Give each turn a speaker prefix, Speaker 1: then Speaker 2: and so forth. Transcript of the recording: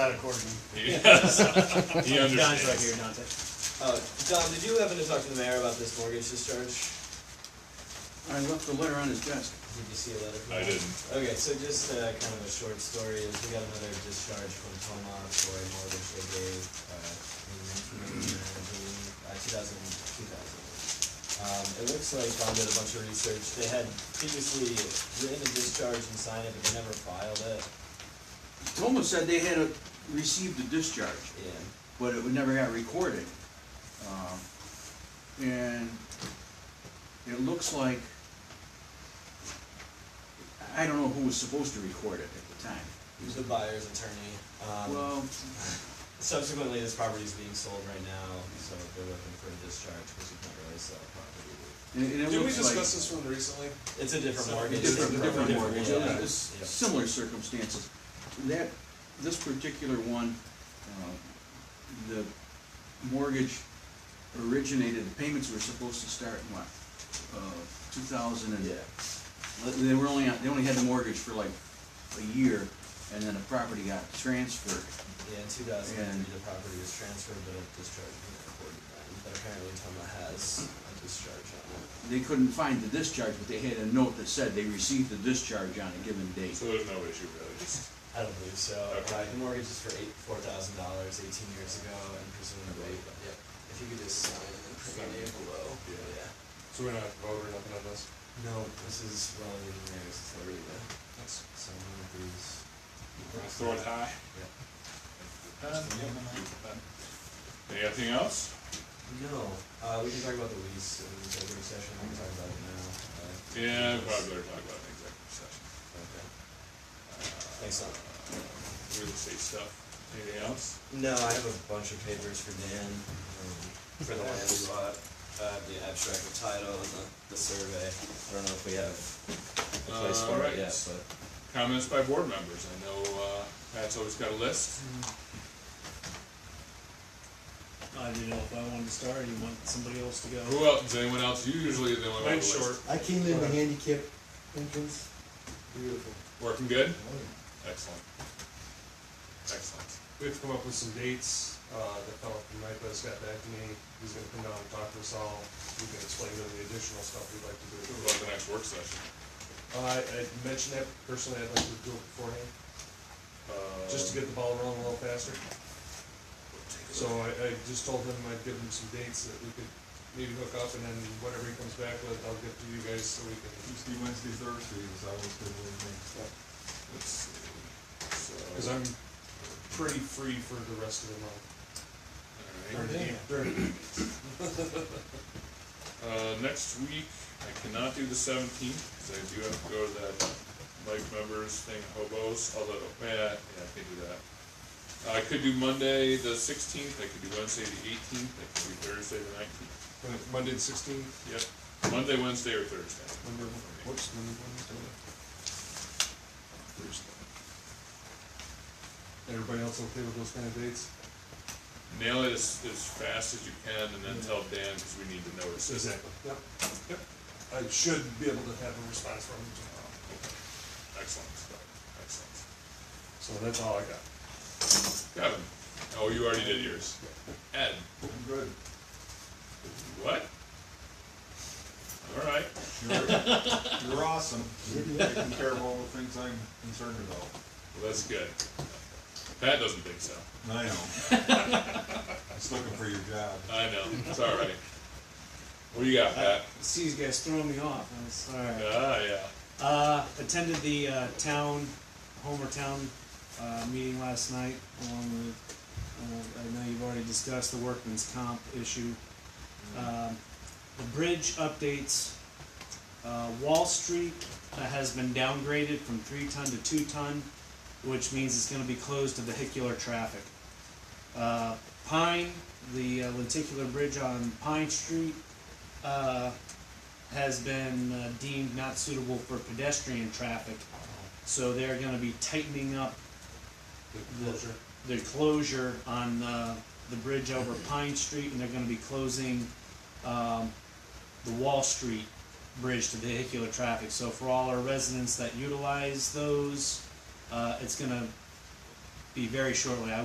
Speaker 1: Not according.
Speaker 2: Yes. He
Speaker 1: John's right
Speaker 2: understands.
Speaker 1: here, Dante.
Speaker 3: Uh, Don, did you happen to talk to the mayor about this mortgage discharge?
Speaker 4: I left the letter on his desk.
Speaker 3: Did you see a letter from
Speaker 2: I
Speaker 3: him?
Speaker 2: didn't.
Speaker 3: Okay, so just uh, kind of a short story is we got another discharge from Toma for a mortgage they gave uh, in 1999, I believe, uh, 2000, 2000. Um, it looks like Don did a bunch of research. They had previously written a discharge and signed it, but they never filed it.
Speaker 4: Toma said they had uh, received a discharge,
Speaker 3: Yeah.
Speaker 4: but it never got recorded. Um, And it looks like, I don't know who was supposed to record it at the time.
Speaker 3: It was the buyer's attorney. Um,
Speaker 4: Well,
Speaker 3: Subsequently, this property is being sold right now, so they're looking for a discharge because you can't really sell a property.
Speaker 4: and and it
Speaker 5: Did we
Speaker 4: looks like.
Speaker 5: discuss this one recently?
Speaker 3: It's a different
Speaker 5: So-
Speaker 3: mortgage.
Speaker 4: Different,
Speaker 5: Different
Speaker 4: different mortgage,
Speaker 5: mortgage,
Speaker 3: yeah.
Speaker 4: yeah, it's
Speaker 3: Yeah.
Speaker 4: similar circumstances. That, this particular one, uh, the mortgage originated, the payments were supposed to start in what? uh, Two thousand and,
Speaker 3: Yeah,
Speaker 4: they were only, they only had the mortgage for like a year, and then the property got transferred.
Speaker 3: yeah, in two thousand and
Speaker 4: And-
Speaker 3: three, the property was transferred, but a discharge was recorded then, but apparently Toma has a discharge on it.
Speaker 4: They couldn't find the discharge, but they had a note that said they received the discharge on a given date.
Speaker 2: So there's no issue really, just,
Speaker 3: I don't believe so,
Speaker 2: Okay.
Speaker 3: right, the mortgage is for eight, four thousand dollars eighteen years ago, and presumably, if you could just sign and print
Speaker 5: Sign.
Speaker 3: it below,
Speaker 5: Yeah.
Speaker 3: yeah.
Speaker 5: So we're not voting or nothing on this?
Speaker 3: No, this is, well, the mayor's, it's already there, so one of these.
Speaker 2: throw it high.
Speaker 3: Yeah.
Speaker 2: Anything else?
Speaker 3: No, uh, we can talk about the lease in the executive session, we can talk about it now. uh,
Speaker 2: Yeah, we
Speaker 3: because-
Speaker 2: probably better talk about an executive session.
Speaker 3: Okay. Uh, Thanks, Tom.
Speaker 2: Real estate stuff. Anything else?
Speaker 3: No, I have a bunch of papers for Dan, um, for the land we bought, uh, the abstract of title and the, the survey. I don't know if we have a place for
Speaker 2: Alright.
Speaker 3: it yet, but.
Speaker 2: Comments by board members. I know, uh, Pat's always got a list.
Speaker 5: Mm-hmm.
Speaker 1: I didn't know if I wanted to start, or you want somebody else to go?
Speaker 2: Who else, is anyone else? Usually they want to.
Speaker 5: Mine's short.
Speaker 6: I came in the handicap entrance. Beautiful.
Speaker 2: Working good?
Speaker 5: Mm-hmm.
Speaker 2: Excellent. Excellent.
Speaker 5: We have to come up with some dates, uh, the fellow from NIPA's got back to me, he's gonna come down and talk to us all, we can explain to him the additional stuff we'd like to do.
Speaker 2: What about the next work session?
Speaker 5: Uh, I, I mentioned that personally, I'd like to do it beforehand,
Speaker 2: Uh,
Speaker 5: just to get the ball rolling a little faster. So I, I just told him I'd give him some dates that we could maybe hook up, and then whatever he comes back with, I'll give to you guys so we can,
Speaker 6: Tuesday, Wednesday, Thursday is always good with
Speaker 2: Let's see. So,
Speaker 5: cause I'm pretty free for the rest of the month.
Speaker 2: all right.
Speaker 5: During-
Speaker 2: Uh, next week, I cannot do the seventeenth, because I do have to go to that Mike members thing, hobos, although, yeah, yeah, I can do that. I could do Monday the sixteenth, I could do Wednesday the eighteenth, I could do Thursday the nineteenth,
Speaker 5: Monday the sixteenth,
Speaker 2: yep, Monday, Wednesday, or Thursday.
Speaker 5: Monday, whoops, Monday, Wednesday. Thursday. Everybody else okay with those kind of dates?
Speaker 2: Nail it as, as fast as you can, and then tell Dan, because we need to notice this.
Speaker 5: Yep, yep. I should be able to have a response from him tomorrow,
Speaker 2: Excellent, excellent.
Speaker 5: so that's all I got.
Speaker 2: Kevin, oh, you already did yours. Ed,
Speaker 6: me. Good.
Speaker 2: what? All right.
Speaker 6: You're, you're awesome. Taking care of all the things I'm concerned about.
Speaker 2: Well, that's good. Pat doesn't think so.
Speaker 6: I know. Just looking for your job.
Speaker 2: I know. It's all right. What do you got, Pat?
Speaker 1: See, you guys throwing me off, I was, alright.
Speaker 2: Ah, yeah.
Speaker 1: Uh, attended the, uh, town, Homer Town, uh, meeting last night, along with, uh, I know you've already discussed the workman's comp issue. Um, the bridge updates, uh, Wall Street uh, has been downgraded from three ton to two ton, which means it's gonna be closed to vehicular traffic. Uh, Pine, the uh, lenticular bridge on Pine Street, uh, has been uh, deemed not suitable for pedestrian traffic. So they're gonna be tightening up
Speaker 5: The closure.
Speaker 1: the closure on, uh, the bridge over Pine Street, and they're gonna be closing, um, the Wall Street Bridge to vehicular traffic. So for all our residents that utilize those, uh, it's gonna be very shortly. I